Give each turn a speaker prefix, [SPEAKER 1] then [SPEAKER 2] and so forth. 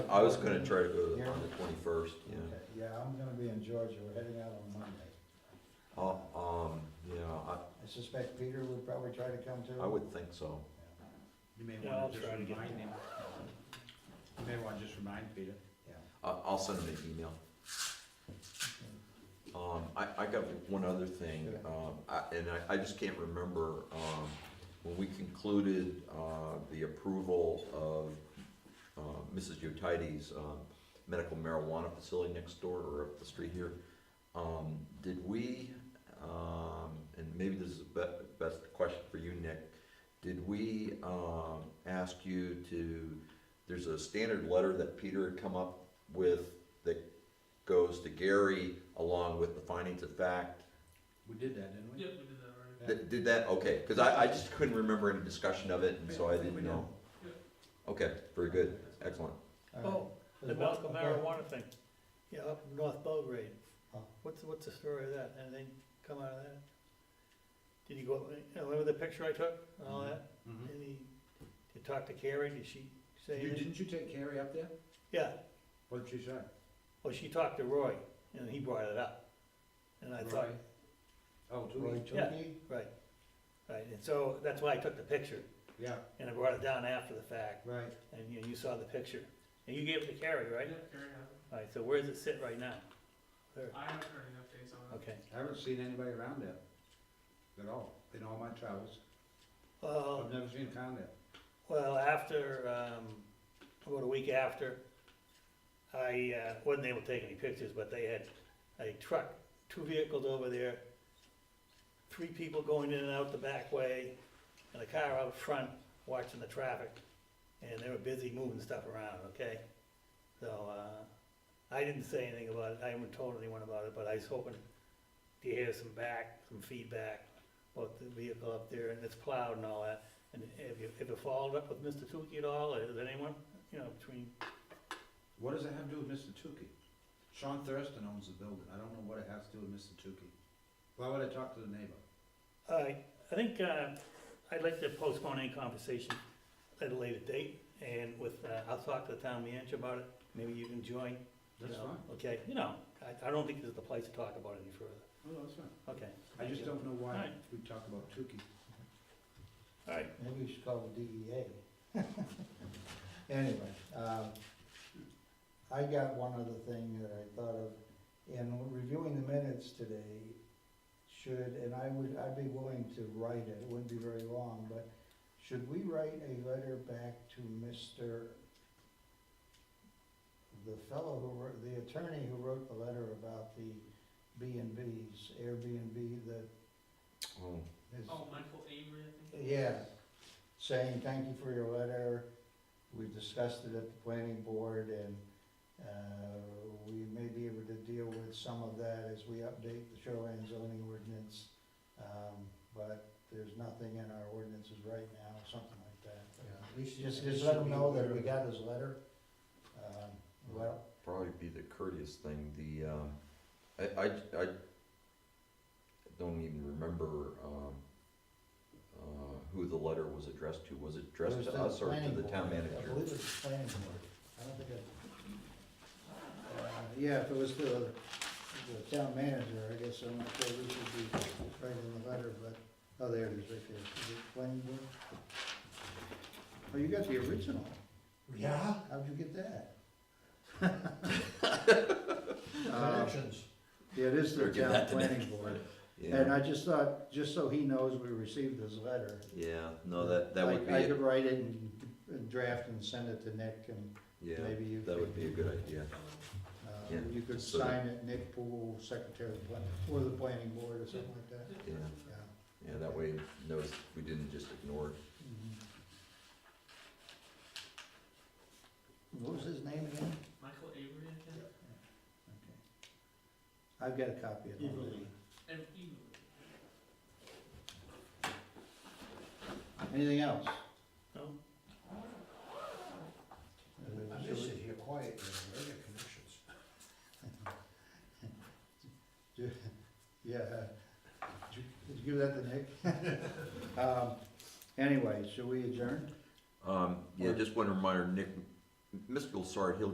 [SPEAKER 1] I was gonna try to go to the- on the twenty-first, yeah.
[SPEAKER 2] Okay, yeah, I'm gonna be in Georgia, we're heading out on Monday.
[SPEAKER 1] Uh, um, yeah,
[SPEAKER 2] I suspect Peter would probably try to come too.
[SPEAKER 1] I, I would think so.
[SPEAKER 3] You may
[SPEAKER 4] Yeah, I'll
[SPEAKER 3] want to just
[SPEAKER 4] try to get
[SPEAKER 3] remind
[SPEAKER 4] that.
[SPEAKER 3] him. You may want to just remind Peter.
[SPEAKER 2] Yeah.
[SPEAKER 1] I, I'll send him an email. Um, I, I got one other thing, um, I, and I, I just can't remember, um, when we concluded, uh, the approval of, uh, Mrs. Yotite's, um, medical marijuana facility next door or up the street here, um, did we, um, and maybe this is the be- best question for you, Nick, did we, um, ask you to, there's a standard letter that Peter had come up with that goes to Gary along with the findings of fact.
[SPEAKER 3] We did that, didn't we?
[SPEAKER 4] Yep, we did that already.
[SPEAKER 3] Yeah.
[SPEAKER 1] Th- Did that, okay, because I, I just couldn't remember any discussion of it, and so I didn't know. Okay, very good, excellent.
[SPEAKER 2] All right.
[SPEAKER 5] Oh, the
[SPEAKER 2] There's
[SPEAKER 5] medical
[SPEAKER 2] one-
[SPEAKER 5] marijuana thing, yeah, up in North Belgrade.
[SPEAKER 2] Huh.
[SPEAKER 5] What's, what's the story of that? Anything come out of that? Did you go, up- you know, remember the picture I took and all that?
[SPEAKER 3] Mhm.
[SPEAKER 5] Did he, did you talk to Carrie? Did she say
[SPEAKER 3] You,
[SPEAKER 5] anything?
[SPEAKER 3] didn't you take Carrie up there?
[SPEAKER 5] Yeah,
[SPEAKER 3] What did she say?
[SPEAKER 5] well, Oh, she talked to Roy and he brought it up. And I thought,
[SPEAKER 3] Roy? Oh,
[SPEAKER 2] Roy
[SPEAKER 3] Tootie,
[SPEAKER 2] Tukey,
[SPEAKER 5] right, right, and so that's why I took the picture
[SPEAKER 3] yeah,
[SPEAKER 5] and I brought it down after the fact
[SPEAKER 2] right,
[SPEAKER 5] and, you know, you saw the picture. And you gave it to Carrie, right?
[SPEAKER 4] Yeah, Gary has it.
[SPEAKER 5] All right, so where does it sit right now? There,
[SPEAKER 4] I haven't heard any updates on it.
[SPEAKER 5] okay.
[SPEAKER 3] I haven't seen anybody around there at all, in all my travels,
[SPEAKER 5] Well,
[SPEAKER 3] I've never seen a con there.
[SPEAKER 5] Well, after, um, about a week after, I, uh, wasn't able to take any pictures, but they had a truck, two vehicles over there, three people going in and out the back way, and a car out front watching the traffic, and they were busy moving stuff around, okay? So, uh, I didn't say anything about it, I haven't told anyone about it, but I was hoping to hear some back, some feedback about the vehicle up there and its plowed and all that. And have you ever followed up with Mr. Tukey at all, or is anyone, you know, between,
[SPEAKER 3] What does it have to do with Mr. Tukey? Sean Thurston owns the building, I don't know what it has to do with Mr. Tukey. Why would I talk to the neighbor?
[SPEAKER 5] I, I think, uh, I'd like to postpone any conversation at a later date, and with, uh, I'll talk to the town manager about it, maybe you can join. you
[SPEAKER 3] That's
[SPEAKER 5] know,
[SPEAKER 3] fine,
[SPEAKER 5] Okay, you know, I, I don't think this is the place to talk about it any further,
[SPEAKER 3] no, Oh, that's fine.
[SPEAKER 5] okay.
[SPEAKER 3] I just don't know why
[SPEAKER 5] Alright.
[SPEAKER 3] we talk about Tukey.
[SPEAKER 5] Alright,
[SPEAKER 2] maybe we should call the DEA. Anyway, um, I got one other thing that I thought of, in reviewing the minutes today, should, and I would, I'd be willing to write it, it wouldn't be very long, but should we write a letter back to Mr., the fellow who wrote, the attorney who wrote the letter about the B and Bs, Airbnb that
[SPEAKER 1] Oh,
[SPEAKER 2] is.
[SPEAKER 4] Oh, Michael Avery, I think.
[SPEAKER 2] Yeah, saying thank you for your letter, we discussed it at the planning board and, uh, we may be able to deal with some of that as we update the shoreline zoning ordinance. Um, but there's nothing in our ordinances right now, something like that.
[SPEAKER 6] Yeah, at least you-
[SPEAKER 2] Just,
[SPEAKER 6] at least
[SPEAKER 2] just let
[SPEAKER 6] you'll
[SPEAKER 2] them
[SPEAKER 6] be
[SPEAKER 2] know
[SPEAKER 6] aware
[SPEAKER 2] that we
[SPEAKER 6] of
[SPEAKER 2] got his letter. Um, well,
[SPEAKER 1] Probably be the courteous thing, the, um, I, I, I don't even remember, um, uh, who the letter was addressed to, was it
[SPEAKER 2] It
[SPEAKER 1] addressed
[SPEAKER 2] was
[SPEAKER 1] to us or to
[SPEAKER 2] planning
[SPEAKER 1] the town
[SPEAKER 2] board. I
[SPEAKER 1] manager?
[SPEAKER 2] believe it was the planning board. I don't think it. Uh, Yeah, if it was the, the town manager, I guess I'm not sure we should be writing the letter, but, oh, there it is, right there. Is it planning board? Oh, you got the original.
[SPEAKER 6] Yeah,
[SPEAKER 2] How'd you get that?
[SPEAKER 6] connections.
[SPEAKER 2] Uh, Yeah, it is the
[SPEAKER 1] Or give
[SPEAKER 2] town
[SPEAKER 1] that to
[SPEAKER 2] planning
[SPEAKER 1] Nick.
[SPEAKER 2] board. And
[SPEAKER 1] Yeah,
[SPEAKER 2] I just thought, just so he knows we received his letter.
[SPEAKER 1] yeah, no, that, that
[SPEAKER 2] I-
[SPEAKER 1] would be,
[SPEAKER 2] I
[SPEAKER 1] a-
[SPEAKER 2] could write it and draft and send it to Nick and
[SPEAKER 1] yeah,
[SPEAKER 2] maybe you.
[SPEAKER 1] that
[SPEAKER 2] could-
[SPEAKER 1] would be a good idea.
[SPEAKER 2] Uh,
[SPEAKER 1] Yeah,
[SPEAKER 2] You could
[SPEAKER 1] so that-
[SPEAKER 2] sign it, Nick Poole, Secretary of Plan, or the Planning Board or something like that,
[SPEAKER 1] Yeah,
[SPEAKER 2] yeah.
[SPEAKER 1] yeah, that way it knows we didn't just ignore it.
[SPEAKER 2] What was his name again?
[SPEAKER 4] Michael Avery, I think.
[SPEAKER 2] Okay. I've got a copy of
[SPEAKER 6] Evilly.
[SPEAKER 2] it.
[SPEAKER 4] And Avery.
[SPEAKER 2] Anything else? Uh,
[SPEAKER 5] no,
[SPEAKER 6] I just sit here quiet, you know, I got connections.
[SPEAKER 2] Yeah, uh, did you- did you give that to Nick? Um, Anyway, should we adjourn?
[SPEAKER 1] Um, yeah,
[SPEAKER 2] Or-
[SPEAKER 1] just one reminder, Nick, Mr. Gilsart, he'll